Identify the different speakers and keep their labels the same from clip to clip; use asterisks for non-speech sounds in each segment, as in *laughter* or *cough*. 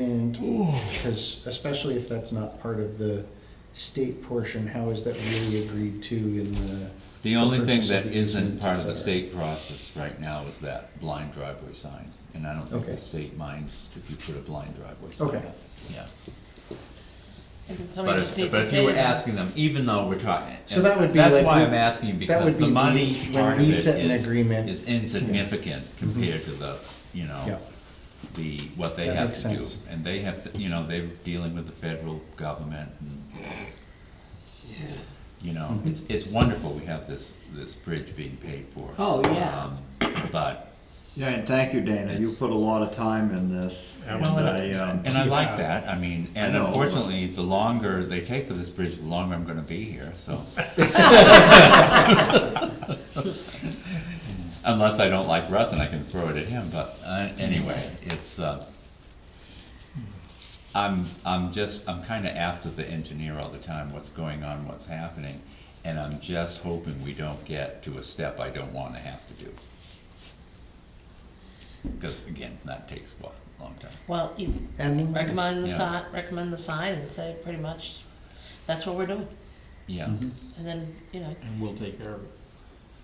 Speaker 1: And, because especially if that's not part of the state portion, how is that really agreed to in the?
Speaker 2: The only thing
Speaker 1: purchase of
Speaker 2: that
Speaker 1: the
Speaker 2: isn't
Speaker 1: easement,
Speaker 2: part of
Speaker 1: et
Speaker 2: the
Speaker 1: cetera?
Speaker 2: state process right now is that blind driveway sign. And I don't think
Speaker 1: Okay.
Speaker 2: the state minds if you put a blind driveway sign
Speaker 1: Okay.
Speaker 2: up. Yeah.
Speaker 3: And
Speaker 2: But
Speaker 3: somebody
Speaker 2: if,
Speaker 3: just needs
Speaker 2: but
Speaker 3: to
Speaker 2: if you were
Speaker 3: say that.
Speaker 2: asking them, even though we're talking.
Speaker 1: So that would be
Speaker 2: That's
Speaker 1: like
Speaker 2: why
Speaker 1: we-
Speaker 2: I'm asking,
Speaker 1: that
Speaker 2: because
Speaker 1: would
Speaker 2: the
Speaker 1: be
Speaker 2: money
Speaker 1: the- when
Speaker 2: part of
Speaker 1: we
Speaker 2: it
Speaker 1: set an
Speaker 2: is,
Speaker 1: agreement. Mm-hmm.
Speaker 2: is insignificant compared to the, you
Speaker 1: Yeah.
Speaker 2: know, the, what they
Speaker 1: That
Speaker 2: have
Speaker 1: makes
Speaker 2: to do.
Speaker 1: sense.
Speaker 2: And they have, to you know, they're dealing with the federal government and, you know,
Speaker 1: Mm-hmm.
Speaker 2: it's, it's wonderful we have this, this bridge being paid for.
Speaker 3: Oh, yeah.
Speaker 2: Um, But,
Speaker 4: Yeah, and thank you, Dana, you
Speaker 2: It's-
Speaker 4: put a lot of time in this, and
Speaker 2: Well,
Speaker 4: I, um,
Speaker 2: and I like that, I mean, and
Speaker 4: I know.
Speaker 2: unfortunately, the longer they take with this bridge, the longer I'm gonna be here,
Speaker 4: *laughs*
Speaker 2: so. Unless I don't like Russ and I can throw it at him, but, uh, anyway, it's, uh, I'm, I'm just, I'm kinda after the engineer all the time, what's going on, what's happening, and I'm just hoping we don't get to a step I don't wanna have to do. Because again, that takes a while, long time.
Speaker 3: Well, you
Speaker 1: And-
Speaker 3: recommend the
Speaker 2: Yeah.
Speaker 3: sign, recommend the sign and say pretty much, that's what we're doing.
Speaker 2: Yeah,
Speaker 3: And then, you know,
Speaker 5: and we'll take care of it.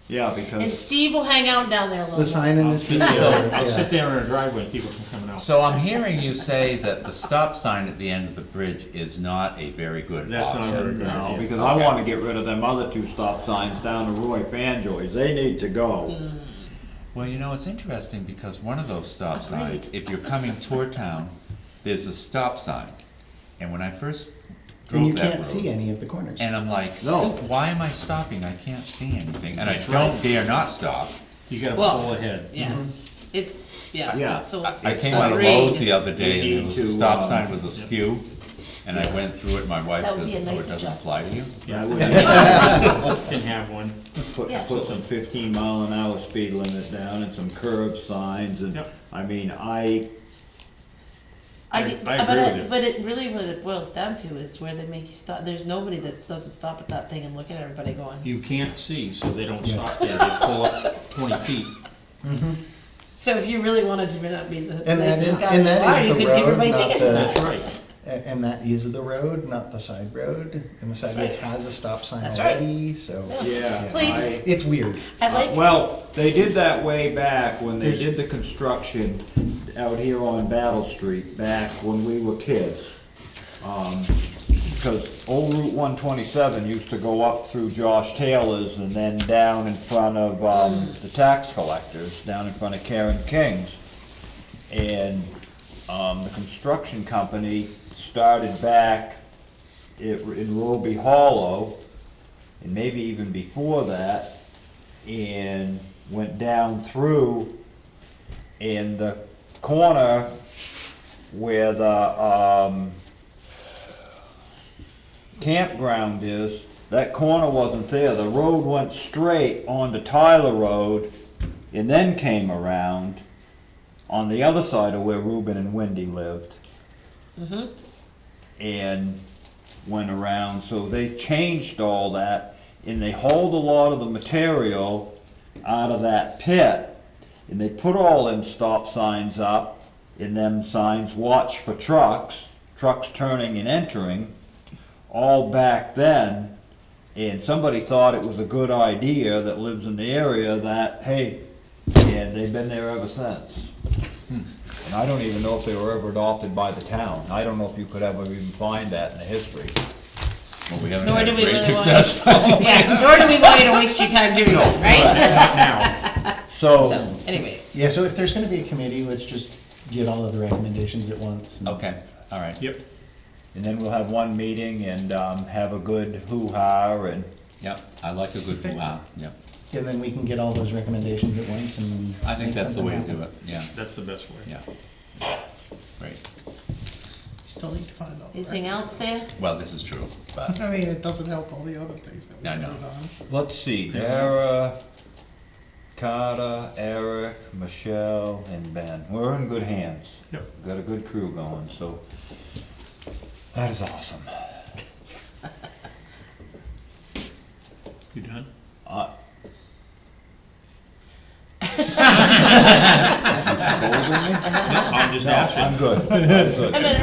Speaker 4: yeah,
Speaker 3: and
Speaker 4: because,
Speaker 3: Steve will hang out down there a little.
Speaker 1: The
Speaker 3: while.
Speaker 1: sign in
Speaker 5: I'll
Speaker 1: this
Speaker 5: sit
Speaker 1: video.
Speaker 5: there, I'll
Speaker 1: yeah.
Speaker 5: sit there in a driveway and people from coming out.
Speaker 2: so I'm hearing you say that the stop sign at the end of the bridge is not a very good
Speaker 5: That's not a very
Speaker 2: option.
Speaker 5: good
Speaker 4: no,
Speaker 5: idea.
Speaker 4: because I wanna get rid of them other two stop signs down to Roy Banjoy's, they need to go.
Speaker 3: Mm.
Speaker 2: Well, you know, it's interesting because one of those stop
Speaker 3: Agreed.
Speaker 2: signs, if you're coming toward town, there's a stop sign. And when I first
Speaker 1: And you
Speaker 2: drove that
Speaker 1: can't see
Speaker 2: road,
Speaker 1: any of the corners.
Speaker 2: and I'm like,
Speaker 4: No.
Speaker 2: why am I stopping? I can't see anything, and I
Speaker 5: That's
Speaker 2: don't
Speaker 5: right.
Speaker 2: dare not stop.
Speaker 5: You gotta pull
Speaker 3: Well,
Speaker 5: ahead.
Speaker 3: yeah,
Speaker 1: Mm-hmm.
Speaker 3: it's, yeah,
Speaker 4: Yeah.
Speaker 3: it's so.
Speaker 2: I I
Speaker 4: It's
Speaker 2: came out of
Speaker 3: agreed.
Speaker 2: Lowe's the other day
Speaker 4: We
Speaker 2: and there was a
Speaker 4: need to,
Speaker 2: stop
Speaker 4: um,
Speaker 2: sign was askew, and I went through it, my wife
Speaker 3: That would be
Speaker 2: says,
Speaker 3: a
Speaker 2: oh, it
Speaker 3: nice
Speaker 2: doesn't apply to you.
Speaker 4: I
Speaker 5: Yeah,
Speaker 3: *laughs*
Speaker 4: would Put,
Speaker 5: can have one.
Speaker 3: Yeah.
Speaker 4: put some fifteen mile an hour speed limit down and some curb signs, and,
Speaker 5: Yep.
Speaker 4: I mean, I,
Speaker 3: I
Speaker 5: I-
Speaker 3: did,
Speaker 5: I
Speaker 3: but
Speaker 5: agree
Speaker 3: it-
Speaker 5: with you.
Speaker 3: But it really, what it boils down to is where they make you stop, there's nobody that doesn't stop at that thing and look at everybody going.
Speaker 5: You can't see, so they don't stop there, they pull up twenty feet.
Speaker 3: So if you really wanted to not be the
Speaker 1: And that is,
Speaker 3: nicest guy in
Speaker 1: and
Speaker 3: the
Speaker 1: that
Speaker 3: bar, you
Speaker 1: is
Speaker 3: could
Speaker 1: the
Speaker 3: give
Speaker 1: road,
Speaker 3: everybody
Speaker 1: not
Speaker 3: tickets.
Speaker 1: the,
Speaker 5: That's right.
Speaker 1: a- and that is the road, not the side road. And the side road
Speaker 3: right.
Speaker 1: has a stop sign
Speaker 3: That's right.
Speaker 1: already, so.
Speaker 3: Yeah.
Speaker 4: yeah,
Speaker 3: Please.
Speaker 4: I-
Speaker 1: It's weird.
Speaker 3: I like,
Speaker 4: Well, they did that way back when they did the construction out here on Battle Street, back when we were kids. Um, Because old Route one twenty-seven used to go up through Josh Taylor's and then down in front of, um, the tax collectors, down in front of Karen King's. And, um, the construction company started back it, in Roby Hollow, and maybe even before that, and went down through, and the corner where the, um, campground is, that corner wasn't there, the road went straight onto Tyler Road, and then came around on the other side of where Reuben and Wendy lived. And went around, so they changed all that, and they hauled a lot of the material out of that pit, and they put all them stop signs up, and them signs, watch for trucks, trucks turning and entering, all back then, and somebody thought it was a good idea that lives in the area that, hey, and they've been there ever since. And I don't even know if they were ever adopted by the town. I don't know if you could ever even find that in the history.
Speaker 2: Well, we haven't
Speaker 3: Nor
Speaker 2: had
Speaker 3: do we
Speaker 2: great
Speaker 3: really want-
Speaker 2: success. *laughs*
Speaker 3: *laughs* yeah, nor do we want you to waste your time doing that, right?
Speaker 5: Now,
Speaker 3: So
Speaker 4: So,
Speaker 3: anyways,
Speaker 1: Yeah, so if there's gonna be a committee, let's just get all of the recommendations at once. and-
Speaker 2: Okay, all right.
Speaker 5: yep,
Speaker 4: and then we'll have one meeting and, um, have a good hoo-ha and,
Speaker 2: Yep, I like a good, wow, yep.
Speaker 1: And then we can get all those recommendations at once and.
Speaker 2: I
Speaker 1: make
Speaker 2: think that's the
Speaker 1: something
Speaker 2: way to
Speaker 1: happen.
Speaker 2: do it, yeah,
Speaker 5: that's the best way.
Speaker 2: yeah. Great,
Speaker 6: Still need to find out.
Speaker 3: anything else there?
Speaker 2: well, this is true, but,
Speaker 6: I mean, it doesn't help all the other things that we
Speaker 2: I know.
Speaker 6: voted on.
Speaker 4: let's see, Dara, Carter, Eric, Michelle, and Ben. We're in good hands.
Speaker 5: Yep.
Speaker 4: Got a good crew going, so that is awesome.
Speaker 5: You done?
Speaker 4: Uh,
Speaker 1: anyway?
Speaker 2: I'm just
Speaker 4: No,
Speaker 2: asking.
Speaker 4: I'm good, I'm good.
Speaker 3: I mean,